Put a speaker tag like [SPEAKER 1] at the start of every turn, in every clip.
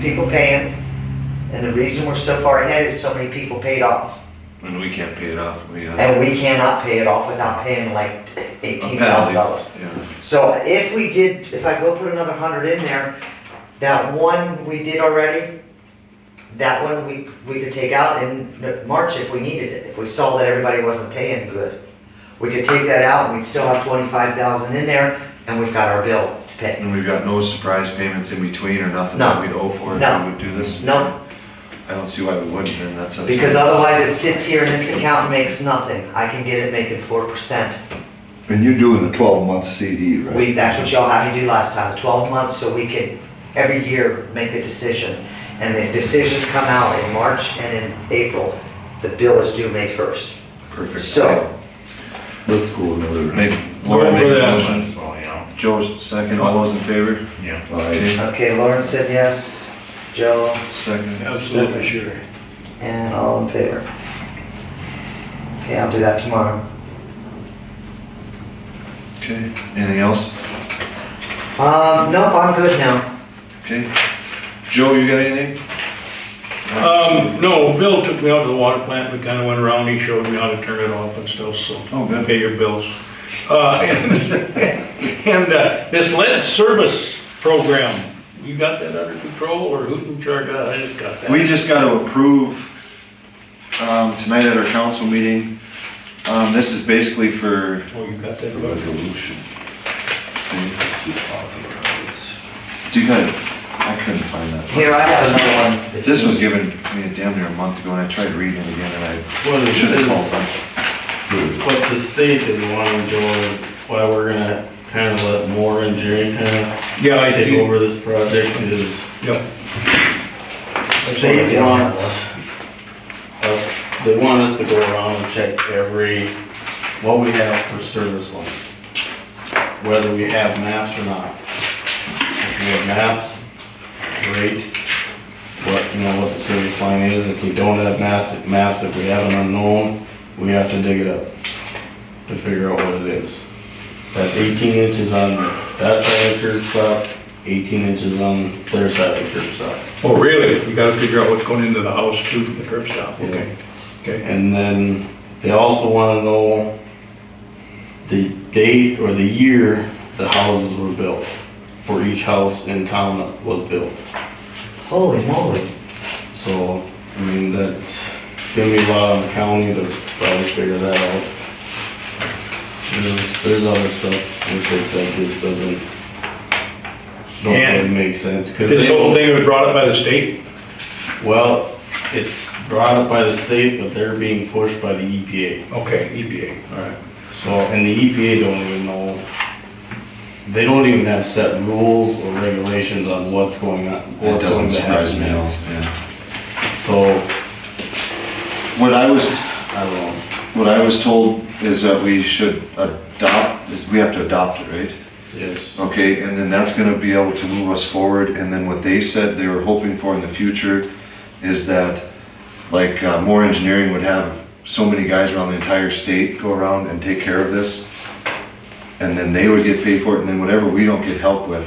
[SPEAKER 1] people paying, and the reason we're so far ahead is so many people paid off.
[SPEAKER 2] And we can't pay it off, we, uh,
[SPEAKER 1] And we cannot pay it off without paying like
[SPEAKER 2] a
[SPEAKER 1] eighteen thousand
[SPEAKER 2] penalty,
[SPEAKER 1] dollars.
[SPEAKER 2] yeah.
[SPEAKER 1] So if we did, if I go put another hundred in there, that one we did already, that one we, we could take out in March if we needed it, if we saw that everybody wasn't paying good. We could take that out and we'd still have twenty-five thousand in there and we've got our bill to pay.
[SPEAKER 2] And we've got no surprise payments in between or nothing
[SPEAKER 1] No.
[SPEAKER 2] that we'd owe for
[SPEAKER 1] No.
[SPEAKER 2] if we would do this?
[SPEAKER 1] No.
[SPEAKER 2] I don't see why we wouldn't, and that's. up to
[SPEAKER 1] Because
[SPEAKER 2] you.
[SPEAKER 1] otherwise it sits here in this account and makes nothing. I can get it making four percent.
[SPEAKER 3] And you're doing the twelve month CD, right?
[SPEAKER 1] We, that's what y'all had to do last time, twelve months, so we can, every year, make the decision. And the decisions come out in March and in April, the bill is due May first.
[SPEAKER 2] Perfect.
[SPEAKER 1] So-
[SPEAKER 3] Let's go another.
[SPEAKER 2] Make, Laura
[SPEAKER 4] Go
[SPEAKER 2] make
[SPEAKER 4] for
[SPEAKER 2] a
[SPEAKER 4] that.
[SPEAKER 2] motion,
[SPEAKER 4] Well, you know,
[SPEAKER 2] Joe's second, all those in favor?
[SPEAKER 4] yeah.
[SPEAKER 3] Aye.
[SPEAKER 1] Okay, Lauren said yes, Joe,
[SPEAKER 2] Second.
[SPEAKER 4] Absolutely, sure.
[SPEAKER 1] and all in favor. Okay, I'll do that tomorrow.
[SPEAKER 2] Okay, anything else?
[SPEAKER 1] Um, nope, I'm good now.
[SPEAKER 2] Okay. Joe, you got anything?
[SPEAKER 4] Um, no, Bill took me out to the water plant, we kinda went around, he showed me how to turn it off and stuff, so.
[SPEAKER 2] Oh, good.
[SPEAKER 4] Pay your bills. Uh, and, and, uh, this lead service program, you got that under control, or who's in charge of that? I just got that.
[SPEAKER 2] We just got to approve, um, tonight at our council meeting, um, this is basically for,
[SPEAKER 4] Oh, you got that? book?
[SPEAKER 3] Resolution. Authorized.
[SPEAKER 2] do you kind of, I couldn't find that.
[SPEAKER 1] Here, I have another one. if
[SPEAKER 2] This
[SPEAKER 1] you
[SPEAKER 2] was
[SPEAKER 1] need.
[SPEAKER 2] given to me damn near a month ago, and I tried reading it again, and
[SPEAKER 5] What
[SPEAKER 2] I
[SPEAKER 5] it
[SPEAKER 2] should have called
[SPEAKER 5] is, Hmm.
[SPEAKER 2] them.
[SPEAKER 5] what the state is wanting to do, why we're gonna kinda let more engineering kinda
[SPEAKER 4] Yeah, I
[SPEAKER 5] take
[SPEAKER 4] see.
[SPEAKER 5] over this project is
[SPEAKER 4] Yep.
[SPEAKER 5] state wants, us- they want us to go around and check every, what we have for service lines. Whether we have maps or not. If we have maps, great. What, you know, what the service line is, if we don't have maps, if maps, if we have an unknown, we have to dig it up to figure out what it is. That's eighteen inches on that side of the curb stop, eighteen inches on their side of the curb stop.
[SPEAKER 4] Oh, really? You gotta figure out what's going into the house too from the curb stop, okay. Okay.
[SPEAKER 5] And then they also want to know the date or the year the houses were built, for each house in town that was built.
[SPEAKER 1] Holy moly.
[SPEAKER 5] So, I mean, that's, it's gonna be a lot on the county to probably figure that out. There's, there's other stuff, we think that just doesn't, don't really
[SPEAKER 4] And-
[SPEAKER 5] make sense. 'cause
[SPEAKER 4] This
[SPEAKER 5] they-
[SPEAKER 4] whole thing was brought up by the state?
[SPEAKER 5] Well, it's brought up by the state, but they're being pushed by the E EPA.
[SPEAKER 4] Okay, EPA, all right.
[SPEAKER 5] So, and the EPA don't even know, they don't even have set rules or regulations on what's going on.
[SPEAKER 2] It
[SPEAKER 5] what's
[SPEAKER 2] doesn't
[SPEAKER 5] going to
[SPEAKER 2] surprise me
[SPEAKER 5] happen
[SPEAKER 2] at all,
[SPEAKER 5] now.
[SPEAKER 2] yeah.
[SPEAKER 5] So,
[SPEAKER 2] What I was,
[SPEAKER 5] I don't know,
[SPEAKER 2] what I was told is that we should adopt, is we have to adopt it, right?
[SPEAKER 5] yes,
[SPEAKER 2] Okay, and then that's gonna be able to move us forward, and then what they said they were hoping for in the future is that, like, uh, more engineering would have so many guys around the entire state go around and take care of this. And then they would get paid for it, and then whatever we don't get help with,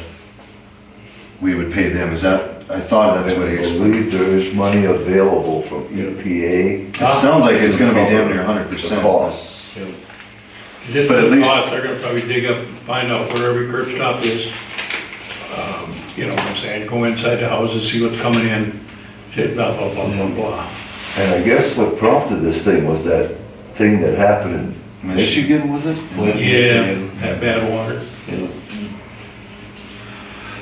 [SPEAKER 2] we would pay them, is that, I thought that's what he
[SPEAKER 3] I
[SPEAKER 2] explained.
[SPEAKER 3] believe there is money available from EPA.
[SPEAKER 2] It sounds like it's gonna be damn near hundred percent.
[SPEAKER 3] The costs.
[SPEAKER 5] yeah,
[SPEAKER 4] Just
[SPEAKER 2] But at
[SPEAKER 4] the
[SPEAKER 2] least-
[SPEAKER 4] cost, they're gonna probably dig up, find out where every curb stop is. Um, You know what I'm saying, go inside the houses, see what's coming in, shit, blah, blah, blah, blah, blah.
[SPEAKER 3] And I guess what prompted this thing was that thing that happened in
[SPEAKER 2] Michigan.
[SPEAKER 3] Michigan, was it?
[SPEAKER 5] Flint,
[SPEAKER 4] Yeah,
[SPEAKER 5] Michigan,
[SPEAKER 4] that bad water.
[SPEAKER 5] yeah.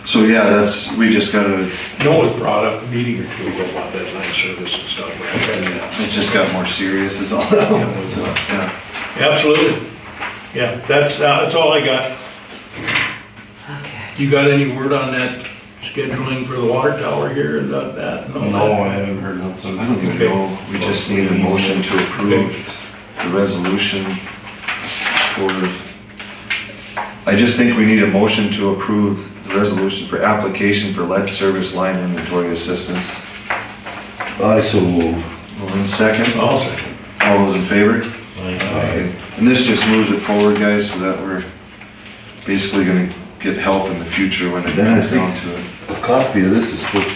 [SPEAKER 2] So, yeah, that's, we just gotta,
[SPEAKER 4] No one brought up a meeting or two ago about that line service and stuff. but I tried to-
[SPEAKER 2] it just got more serious is all. So, yeah.
[SPEAKER 4] Absolutely. Yeah, that's, uh, that's all I got.
[SPEAKER 1] Okay.
[SPEAKER 4] You got any word on that scheduling for the water tower here and that- that?
[SPEAKER 5] No, I haven't heard nothing.
[SPEAKER 2] I don't even know, we just need a motion to approve the resolution for, I just think we need a motion to approve the resolution for application for lead service line inventory assistance.
[SPEAKER 3] I so moved.
[SPEAKER 2] Well, in second,
[SPEAKER 4] I'll second.
[SPEAKER 2] all those in favor?
[SPEAKER 5] Like,
[SPEAKER 2] Okay. And this just moves it forward, guys, so that we're basically gonna get help in the future when it comes down to it.
[SPEAKER 3] A copy of this is supposed to